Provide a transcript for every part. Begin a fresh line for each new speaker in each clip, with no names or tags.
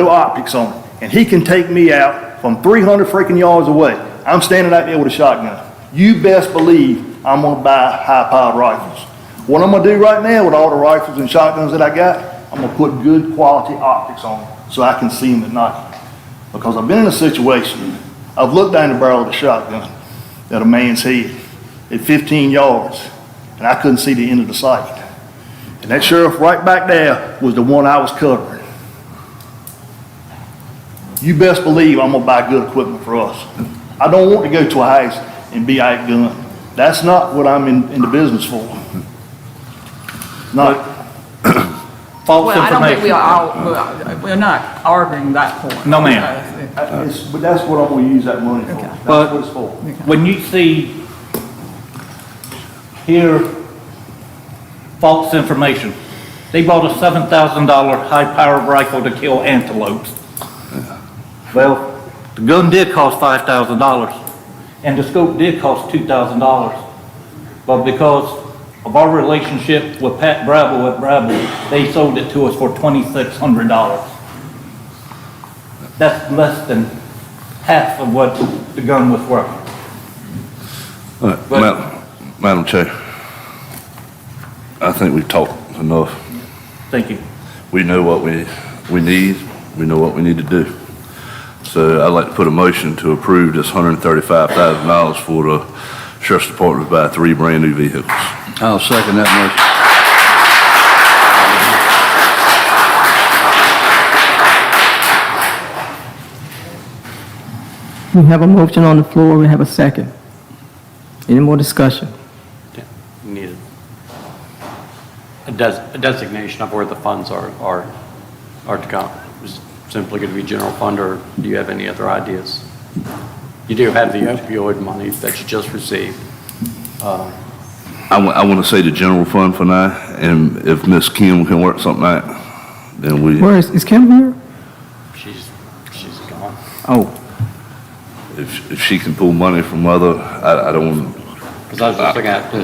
no optics on it, and he can take me out from 300 freaking yards away. I'm standing out there with a shotgun. You best believe I'm gonna buy high-powered rifles. What I'm gonna do right now with all the rifles and shotguns that I got, I'm gonna put good quality optics on them so I can see them at night. Because I've been in a situation, I've looked down the barrel of a shotgun at a man's head at 15 yards, and I couldn't see the end of the sight. And that sheriff right back there was the one I was covering. You best believe I'm gonna buy good equipment for us. I don't want to go to a house and be outgunned. That's not what I'm in, in the business for. Not,
False
Well, I don't think we
information.
are all, we're- we're not arguing that point.
No, ma'am.
Because uh, it-
I- it's- but that's what I'm gonna use that money for.
Okay.
That's what it's for.
When you see, hear false information, they bought a seven thousand dollar high-powered rifle to kill antelopes. Well, the gun did cost five thousand dollars, and the scope did cost two thousand dollars. But because of our relationship with Pat Bravo at Bravo, they sold it to us for twenty-six hundred dollars. That's less than half of what the gun was worth.
All right,
But-
Madam, Madam Chair, I think we've talked enough.
Thank you.
We know what we, we need, we know what we need to do. So I'd like to put a motion to approve this hundred and thirty-five thousand dollars for the Sheriff's Department to buy three brand-new vehicles. I'll second that
We have a motion on the floor, we have a second. Any more discussion?
need a des- a designation of where the funds are, are, are to come. Is it simply going to be general fund, or do you have any other ideas? You do have the opioid money that you just received. Uh,
motion. I wa- I wanna say the general fund for now, and if Miss Kim can work something out, then we,
Where is, is Kim here?
She's, she's gone.
Oh,
if, if she can pull money from other, I, I don't wanna
Because I was just looking at,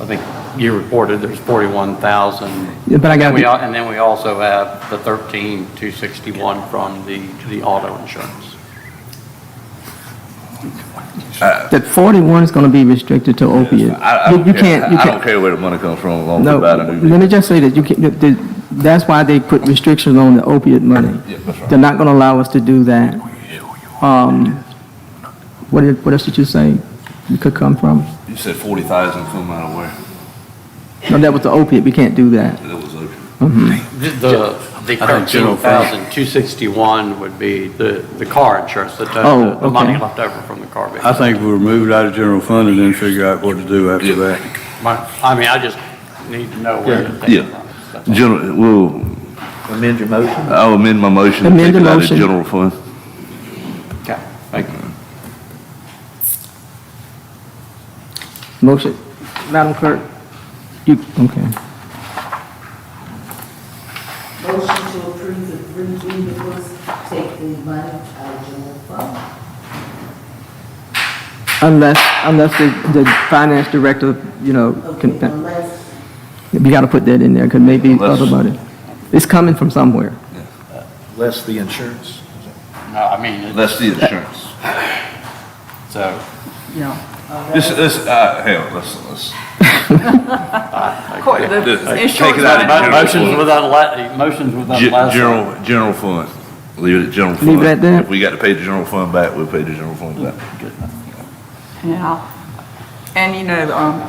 I think you reported there's 41,000.
Yeah, but I got-
We al- And then we also have the 13,261 from the, the auto insurance.
that 41 is going to be restricted to opiate.
I, I
You-
don't
you
care.
can't- you
I
can't-
don't care where the money comes from, as long as
No,
we buy the new
let me just say that you can, that- that- that's why they put restrictions on the opiate money.
Yeah, that's right.
They're not going to allow us to do that. Um, What did, what else did you say it could come from?
You said forty thousand come out of where?
No, that was the opiate, we can't do that. Mm-hmm.
That was open.
The, the thirteen thousand, two sixty-one would be the, the car insurance, the,
Oh,
the the money
okay.
left over from the car.
I
bill.
think we remove it out of general fund and then figure out what to do after that.
My, I mean, I just need to know where to take
Yeah.
it from. That's all.
General, well. Amend your motion? I'll amend my motion. to
Amend
take
the
it out of
motion.
General fund.
Okay, thank you.
Motion, Madam Clerk, you, okay.
Motion to approve the three vehicles, take the money out of general fund.
Unless, unless the, the finance director, you know,
Okay,
can,
unless,
we gotta put that in there, because maybe
Unless-
other money. It's coming from somewhere.
Less the insurance.
No, I mean, uh, it-
That's the insurance.
so,
You know,
This, this, uh, hell, let's, let's.
I-
court-
I-
this-
the
take
insurance
it out of
money-
general.
motions without, la- motions without
Ge-
last.
General, general fund. Leave it at general fund.
Leave it at that?
If we got to pay the general fund back, we'll pay the general fund back.
Yeah, and you know, um,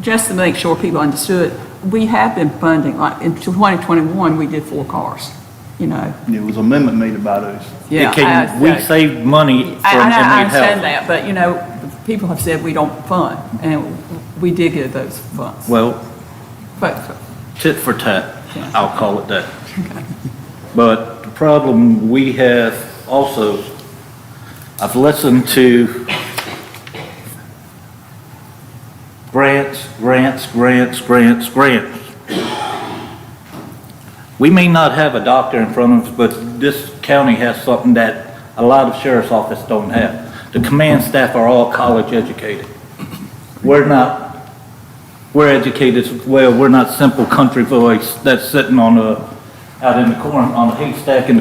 just to make sure people understood, we have been funding, like, in 2021, we did four cars, you know,
There was an amendment made about those.
yeah.
It can-
I-
We
I-
saved money
I,
from
I know- I
inmate
understand
health.
that, but you know, people have said we don't fund, and we did get those funds,
Well,
but
tit for tat, I'll call it that. But the problem we have also, I've listened to grants, grants, grants, grants, grants. We may not have a doctor in front of us, but this county has something that a lot of sheriff's office don't have. The command staff are all college educated. We're not we're educated as well. We're not simple country boys that's sitting on a, out in the corn, on a haystack in the